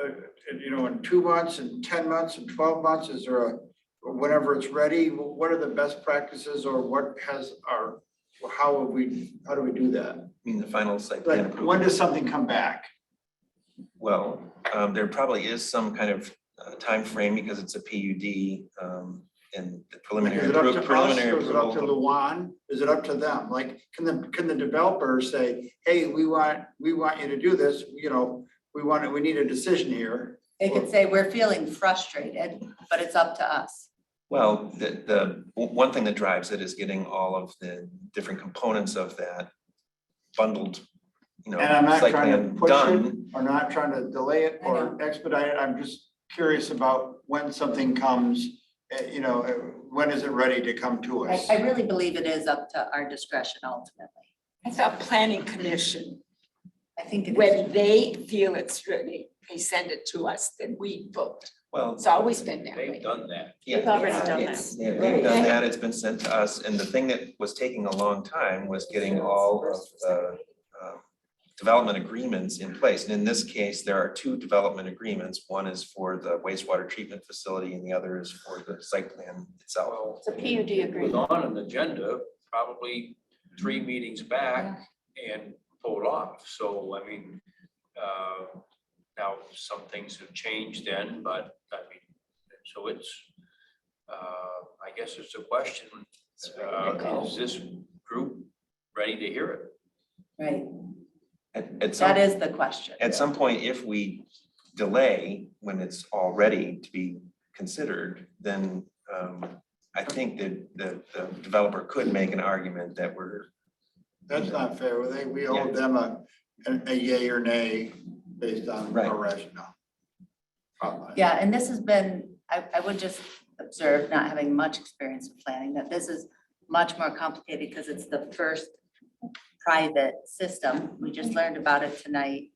uh, in, you know, in two months and ten months and twelve months, is there a, whenever it's ready, what are the best practices or what has our, how have we, how do we do that? mean, the final site plan Like, when approval. does something come back? Well, um, there probably is some kind of uh, timeframe because it's a PUD, um, and the preliminary, Is it up to appro- us preliminary or Is it up to approval. Luwan? Is it up to them? Like, can the, can the developer say, hey, we want, we want you to do this, you know, we want, we need a decision here. They could say, we're feeling frustrated, but it's up to us. Well, the, the, o- one thing that drives it is getting all of the different components of that bundled, you know, And I'm not site trying to plan push it. done. Or not trying to delay it I or expedite it. I'm just curious about when something comes, eh, you know, eh, when is it ready to come to I, us? I really believe it is up to our discretion ultimately. It's our planning commission. I think it is. When they feel it's ready, they send it to us, then we vote. Well, It's always been that They've way. done that. yeah. We've already done that. It's- Yeah, they've done that, it's been sent to us, and the thing that was taking a long time was getting all of the um, development agreements in place, and in this case, there are two development agreements, one is for the wastewater treatment facility and the other is for the site plan itself. Well, It's a PUD it was agreement. on an agenda probably three meetings back and pulled off. So, I mean, uh, now some things have changed then, but I mean, so it's, uh, I guess it's a question. uh, Is this group ready to hear it? Right, At, at that some, is the question. at some point, if we delay when it's all ready to be considered, then um, I think that the, the developer could make an argument that we're That's not fair. We think we owe them a, a yay or nay based on Right. our rationale. Probably. Yeah, and this has been, I, I would just observe, not having much experience with planning, that this is much more complicated because it's the first private system. We just learned about it tonight.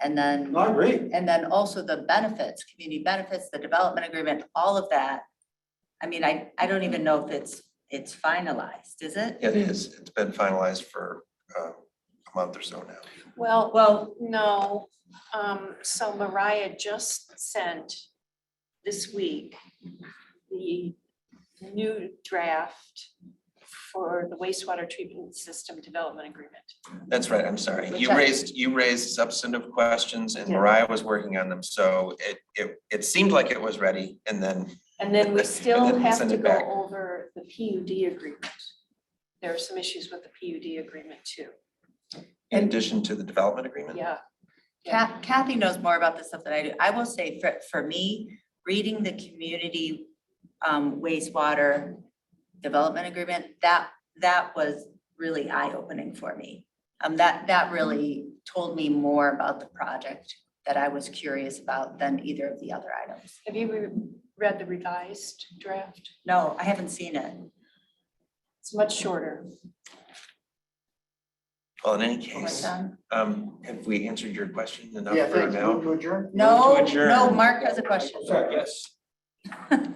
And then No, I agree. And then also the benefits, community benefits, the development agreement, all of that. I mean, I, I don't even know if it's, it's finalized, is it? It Mm-hmm. is. It's been finalized for uh, a month or so now. Well, Well, no, um, so Mariah just sent this week the new draft for the wastewater treatment system development agreement. That's right. I'm sorry. Which You I- raised, you raised substantive questions and Yeah. Mariah was working on them. So it, it, it seemed like it was ready and then, And then we And still then have send to it back. go over the PUD agreement. There are some issues with the PUD agreement too. in And- addition to the development agreement. Yeah, Ca- Kathy knows more about this stuff than I do. I will say for, for me, reading the community um, wastewater development agreement, that, that was really eye-opening for me. Um, that, that really told me more about the project that I was curious about than either of the other items. have you re- read the revised draft? No, I haven't seen it. It's much shorter. Well, in any Oh What's case, done? um, have we answered your question enough Yeah, for thanks. Move now? to adjourn? Move No, to no, adjourn. Mark has a question. Sorry. Yes.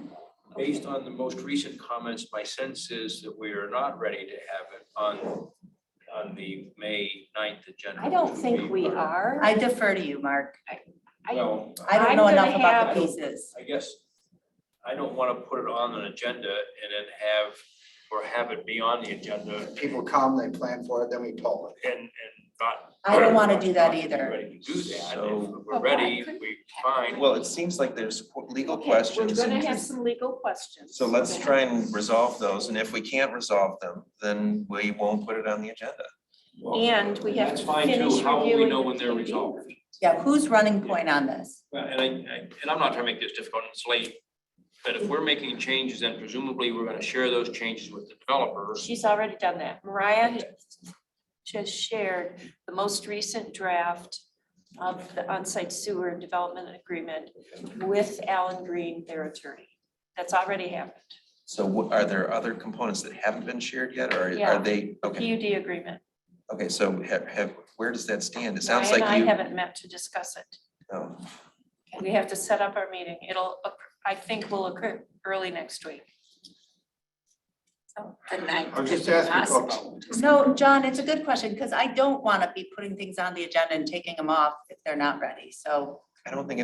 Based on the most recent comments, my sense is that we are not ready to have it on, on the May 9th agenda. I don't think we are. I defer to you, Mark. I- Well, I don't know I'm gonna enough about the have- pieces. I guess I don't want to put it on an agenda and then have, or have it be on the agenda and, People calmly plan for it, then we pull it. and not. I don't wanna do that Not be either. Ready to do that. If So- we're ready, we find. Well, it seems like there's qu- legal Okay, questions. We're gonna and- have some legal questions. So let's try and resolve those. And if we can't resolve them, then we won't put it on the agenda. And we have That's to fine too. finish How will we reviewing know the when they're PUD? resolved? Yeah, who's running point on this? Well, and I, I, and I'm not trying to make this difficult, and it's late, but if we're making changes, then presumably we're gonna share those changes with the developers. She's already done that. Mariah has just shared the most recent draft of the onsite sewer development agreement with Alan Green, their attorney. That's already happened. So wh- are there other components that haven't been shared yet or Yeah. are they, okay? PUD agreement. Okay, so have, have, where does that stand? It sounds Mariah like and I you, haven't met to discuss it. no, We have to set up our meeting. It'll, occur- I think will occur early next week. So The ninth. I was just is asking folks. possible. No, John, it's a good question because I don't want to be putting things on the agenda and taking them off if they're not ready. So I don't think